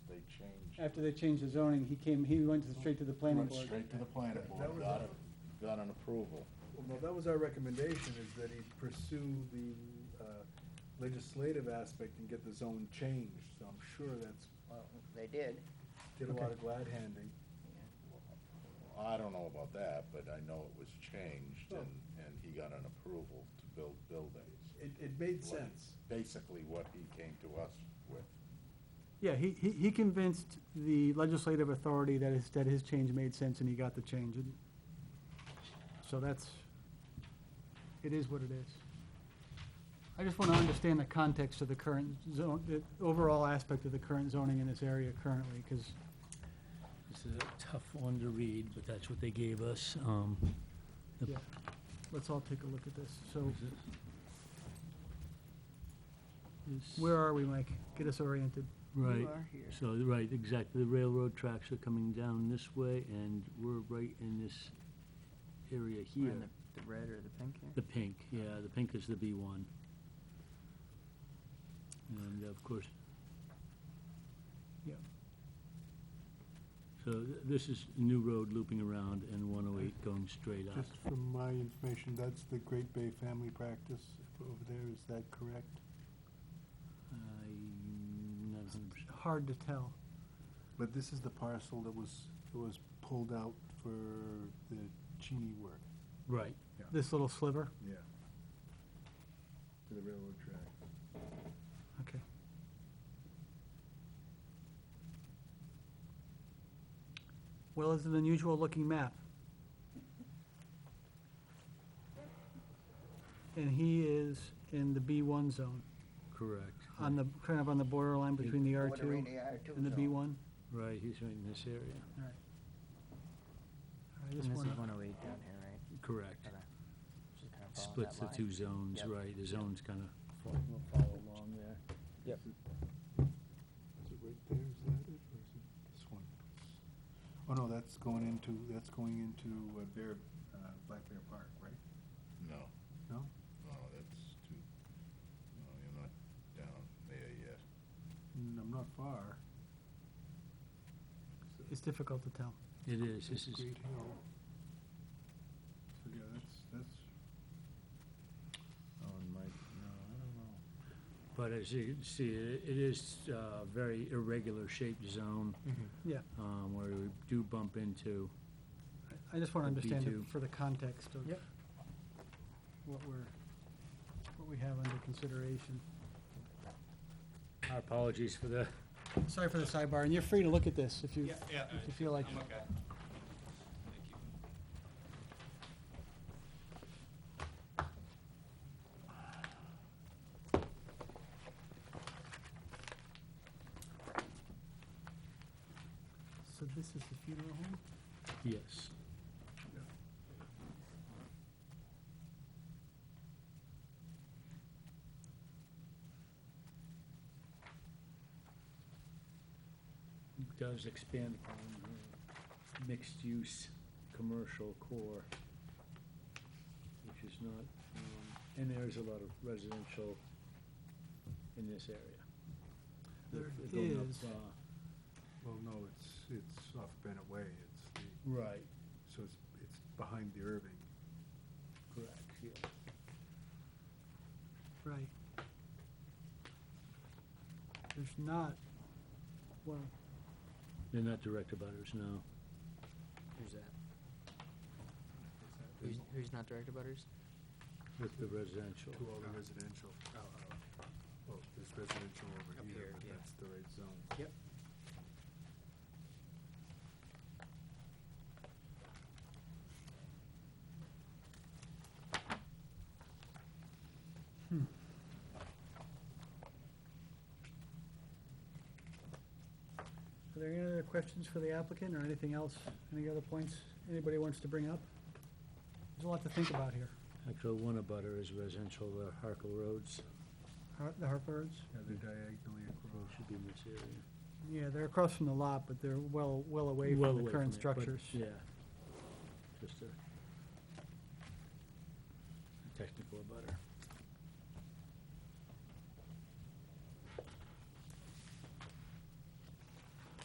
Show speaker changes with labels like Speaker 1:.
Speaker 1: after they changed the zoning, he came, he went to- straight to the planning
Speaker 2: Went
Speaker 1: board.
Speaker 2: straight to the planning
Speaker 3: That- that
Speaker 2: board,
Speaker 3: was
Speaker 2: got,
Speaker 3: our-
Speaker 2: a- got an approval.
Speaker 3: Well, no, that was our recommendation, is that he pursue the uh, legislative aspect and get the zone changed, so I'm sure that's,
Speaker 4: Well, they did.
Speaker 3: did a lot of glad handing.
Speaker 2: I don't know about that, but I know it was changed and, and he got an approval to build buildings.
Speaker 3: It, it made
Speaker 2: What-
Speaker 3: sense.
Speaker 2: Basically what he came to us with.
Speaker 1: Yeah, he, he he convinced the legislative authority that his, that his change made sense and he got the change. And So that's, it is what it is. I just want to understand the context of the current zone, the overall aspect of the current zoning in this area currently, because
Speaker 5: This is a tough one to read, but that's what they gave us. Um, the-
Speaker 1: Yeah. let's all take a look at this. So
Speaker 5: this-
Speaker 1: where are we, Mike? Get us oriented.
Speaker 5: Right,
Speaker 4: You are here.
Speaker 5: so, right, exactly. The railroad tracks are coming down this way, and we're right in this area
Speaker 4: We're
Speaker 5: here.
Speaker 4: in the, the red or the pink here?
Speaker 5: The pink, yeah, the pink is the B1. And of course.
Speaker 1: Yeah.
Speaker 5: So th- this is New Road looping around and 108 going straight up.
Speaker 6: Just from my information, that's the Great Bay family practice over there, is that correct?
Speaker 5: I'm not 100%.
Speaker 1: Hard to tell.
Speaker 6: But this is the parcel that was, that was pulled out for the Cheney work.
Speaker 5: Right,
Speaker 1: This little sliver,
Speaker 3: Yeah. To the railroad track.
Speaker 1: okay. Well, it's an unusual looking map. And he is in the B1 zone,
Speaker 5: correct.
Speaker 1: on the, kind of on the borderline between the
Speaker 4: Bordering
Speaker 1: R2
Speaker 4: R2
Speaker 1: and the
Speaker 4: zone.
Speaker 1: B1. All
Speaker 5: Right, he's right in this area.
Speaker 1: right,
Speaker 4: And
Speaker 1: this
Speaker 4: this is
Speaker 1: one-
Speaker 4: one oh eight down here, right?
Speaker 5: Correct.
Speaker 4: Okay. Just kinda follow
Speaker 5: Splits the
Speaker 4: that
Speaker 5: two
Speaker 4: line.
Speaker 5: zones,
Speaker 4: Yep.
Speaker 5: right, the zones kind of
Speaker 4: We'll we'll follow along there.
Speaker 6: Is it right there, is that it, or is it this one? Oh, no, that's going into, that's going into uh, Bear, uh, Black Bear Park, right?
Speaker 2: No.
Speaker 6: No?
Speaker 2: No, that's too, no, you're not down there yet.
Speaker 6: Mm, I'm not far.
Speaker 1: It's difficult to tell.
Speaker 5: It is, this is,
Speaker 6: Great Hill. So, yeah, that's, that's,
Speaker 2: Oh, and Mike, no, I don't know.
Speaker 5: but as you can see, it it is a very irregular shaped zone.
Speaker 1: Yeah.
Speaker 5: um, Where we do bump into,
Speaker 1: I just want to
Speaker 5: The
Speaker 1: understand
Speaker 5: B2.
Speaker 1: it for the context of
Speaker 5: Yep.
Speaker 1: what we're, what we have under consideration.
Speaker 5: our apologies for the
Speaker 1: Sorry for the sidebar, and you're free to look at this if you,
Speaker 7: Yeah, yeah,
Speaker 1: if you feel like.
Speaker 7: I'm okay. Thank you.
Speaker 1: So this is the funeral home?
Speaker 5: Yes. It Does expand upon the mixed-use commercial core, which is not, um, and there is a lot of residential in this area.
Speaker 1: There
Speaker 5: They're going up,
Speaker 1: is.
Speaker 5: uh,
Speaker 6: well, no, it's, it's off Bennett Way, it's the,
Speaker 5: Right,
Speaker 6: so it's, it's behind the Irving.
Speaker 5: correct, yeah.
Speaker 1: Right. There's not, well,
Speaker 5: They're not direct abutters, no.
Speaker 4: Who's that? Who's, who's not direct butters?
Speaker 5: With the residential.
Speaker 6: To all the residential. uh, Well, there's residential over
Speaker 4: Up here,
Speaker 6: here, but
Speaker 4: yeah.
Speaker 6: that's the right zone.
Speaker 1: are there any other questions for the applicant or anything else? Any other points anybody wants to bring up? There's a lot to think about here.
Speaker 5: Actually, one abutter is residential, the Harkle Roads,
Speaker 1: Har- The Harpers,
Speaker 6: Yeah, they're diagonally across.
Speaker 5: Road should be in this area.
Speaker 1: yeah, they're across from the lot, but they're well, well away
Speaker 5: Well
Speaker 1: from the
Speaker 5: away
Speaker 1: current
Speaker 5: it, but
Speaker 1: structures.
Speaker 5: Yeah. Just a